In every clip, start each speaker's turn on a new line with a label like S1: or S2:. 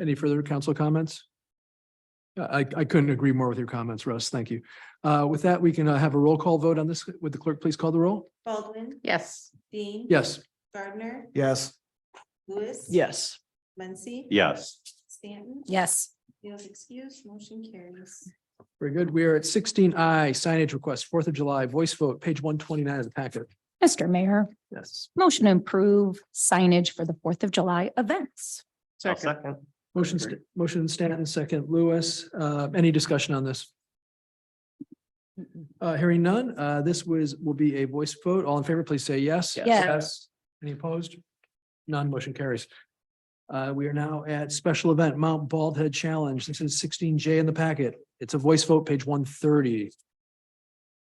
S1: Any further council comments? Uh, I, I couldn't agree more with your comments, Russ. Thank you. Uh, With that, we can uh, have a roll call vote on this. Would the clerk please call the roll?
S2: Baldwin,
S3: Yes.
S2: Dean.
S1: Yes.
S2: Gardner,
S4: Yes.
S2: Lewis.
S5: Yes.
S2: Muncy.
S4: Yes.
S2: Stanton.
S3: Yes.
S2: Field excuse, motion carries.
S1: Very good. We are at sixteen I signage request, Fourth of July voice vote, page one twenty-nine of the packet.
S3: Mr. Mayor,
S1: Yes.
S3: motion to approve signage for the Fourth of July events.
S4: I'll Second.
S1: Motion, st- motion Stanton, second Lewis. Uh, Any discussion on this? Uh, Hearing none, uh, this was, will be a voice vote. All in favor, please say yes.
S3: Yes. Yes.
S1: Any opposed? None motion carries. Uh, We are now at special event Mount Bald Head Challenge. This is sixteen J in the packet. It's a voice vote, page one thirty.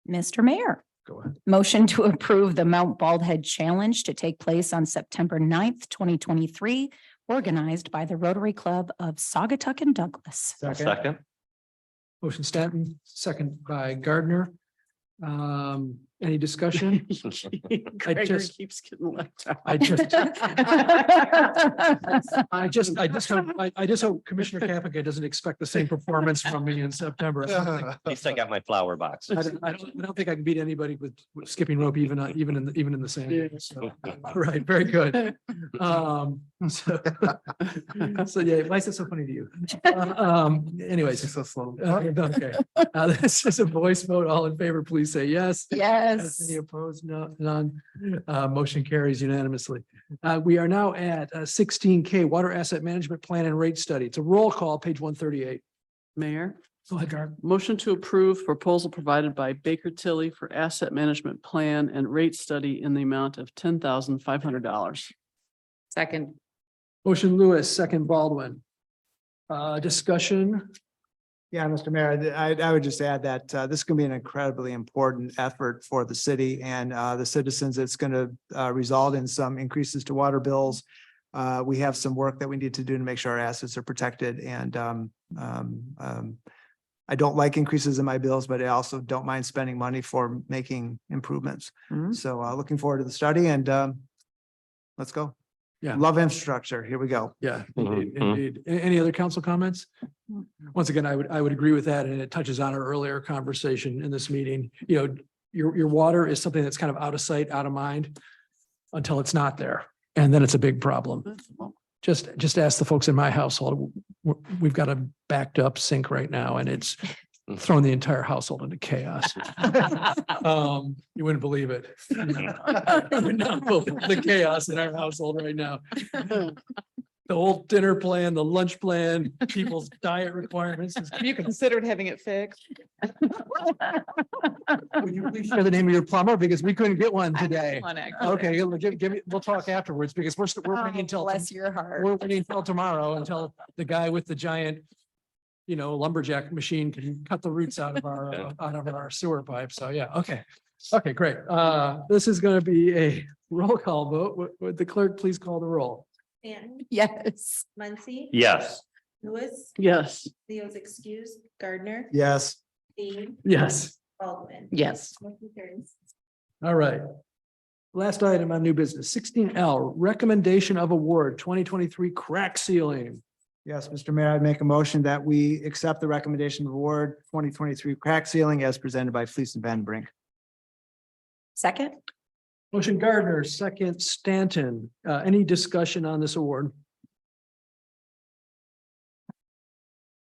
S3: Mr. Mayor,
S1: Go ahead.
S3: motion to approve the Mount Bald Head Challenge to take place on September 9th, twenty twenty-three, organized by the Rotary Club of Sagatuck and Douglas.
S4: I'll Second.
S1: Motion Stanton, second by Gardner. Um, Any discussion?
S5: Gregor
S1: just-
S5: keeps getting left out.
S1: I just, I just, I just, hope- I, I just hope Commissioner Kapika doesn't expect the same performance from me in September. I don't think-
S4: At least I got my flower box.
S1: I don't, I don't, I don't think I can beat anybody with with skipping rope even, on- even in, the- even in the sand. So, all Right, very good. Um, so, so yeah, why is it so funny to you? Uh, Um, anyways.
S4: so slow.
S1: uh, Okay, uh, this is a voice vote. All in favor, please say yes.
S3: Yes.
S1: Any opposed? No, none. Uh, motion carries unanimously. Uh, we are now at sixteen K Water Asset Management Plan and Rate Study. It's a roll call, page one thirty-eight.
S5: Mayor,
S1: Go ahead, Gar.
S5: motion to approve proposal provided by Baker Tilly for asset management plan and rate study in the amount of ten thousand five hundred dollars.
S3: Second.
S1: Motion Lewis, second Baldwin. Uh, discussion,
S6: Yeah, Mr. Mayor, I'd- I, I would just add that uh, this is going to be an incredibly important effort for the city and uh, the citizens. It's going to result in some increases to water bills. Uh, We have some work that we need to do to make sure our assets are protected and um, um, um, I don't like increases in my bills, but I also don't mind spending money for making improvements.
S5: Mhm.
S6: So uh, looking forward to the study and um, let's go.
S1: Yeah.
S6: Love infrastructure. Here we go.
S1: yeah,
S4: Mhm,
S1: indeed,
S4: mhm.
S1: indeed. A- Any other council comments? Once again, I would, I would agree with that, and it touches on our earlier conversation in this meeting. You know, your, your water is something that's kind of out of sight, out of mind until it's not there, and then it's a big problem. just just ask the folks in my household. W- We've got a backed up sink right now and it's thrown the entire household into chaos. Um, you wouldn't believe it. You would not believe The chaos in our household right now. The whole dinner plan, the lunch plan, people's diet requirements. is-
S7: Have you considered having it fixed?
S1: Would you please share the name of your plumber? Because we couldn't get one today.
S7: On it.
S1: Okay, give, give me, we'll talk afterwards because we're, st- we're waiting until.
S3: Oh, Bless your heart.
S1: We're waiting until tomorrow until the guy with the giant, you know, lumberjack machine can cut the roots out of our,
S4: Yeah.
S1: out of our sewer pipe. So, yeah, okay. Okay, great. Uh, this is gonna be a roll call vote. Would, would the clerk please call the roll?
S2: Stanton,
S3: Yes.
S2: Muncy.
S4: Yes.
S2: Lewis,
S5: Yes.
S2: Leo's excuse, Gardner,
S6: Yes.
S2: Dean,
S1: Yes.
S2: Baldwin.
S5: Yes.
S2: Motion carries.
S1: All right. Last item on new business, sixteen L, recommendation of award twenty twenty-three crack ceiling.
S6: Yes, Mr. Mayor, I'd make a motion that we accept the recommendation of award twenty twenty-three crack ceiling as presented by Fleece and Van Brink.
S3: Second.
S1: Motion Gardner, second Stanton. Uh, any discussion on this award?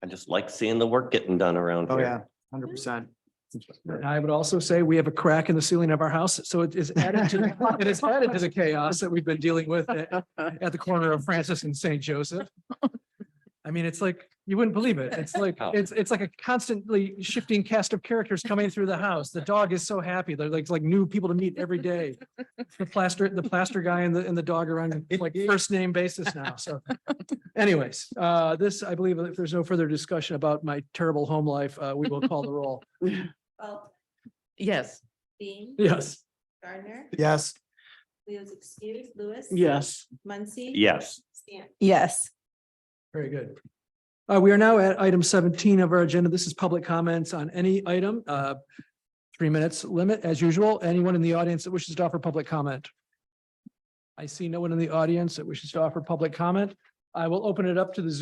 S4: I just like seeing the work getting done around
S6: Oh, yeah,
S4: here.
S6: hundred percent.
S1: And I would also say we have a crack in the ceiling of our house, so it is added to, it is added to the chaos that we've been dealing with at, at the corner of Francis and St. Joseph. I mean, it's like, you wouldn't believe it. It's like,
S4: Oh.
S1: it's, it's like a constantly shifting cast of characters coming through the house. The dog is so happy. They're like, like new people to meet every day. The plaster, the plaster guy and the, and the dog are on like first name basis now, so. Anyways, uh, this, I believe if there's no further discussion about my terrible home life, uh, we will call the roll.
S2: Baldwin,
S5: Yes.
S2: Dean,
S1: Yes.
S2: Gardner,
S6: Yes.
S2: Leo's excuse, Lewis.
S5: Yes.
S2: Muncy.
S4: Yes.
S2: Stanton,
S3: Yes.
S1: Very good. Uh, we are now at item seventeen of our agenda. This is public comments on any item. Uh, Three minutes limit as usual. Anyone in the audience that wishes to offer public comment? I see no one in the audience that wishes to offer public comment. I will open it up to the Zoom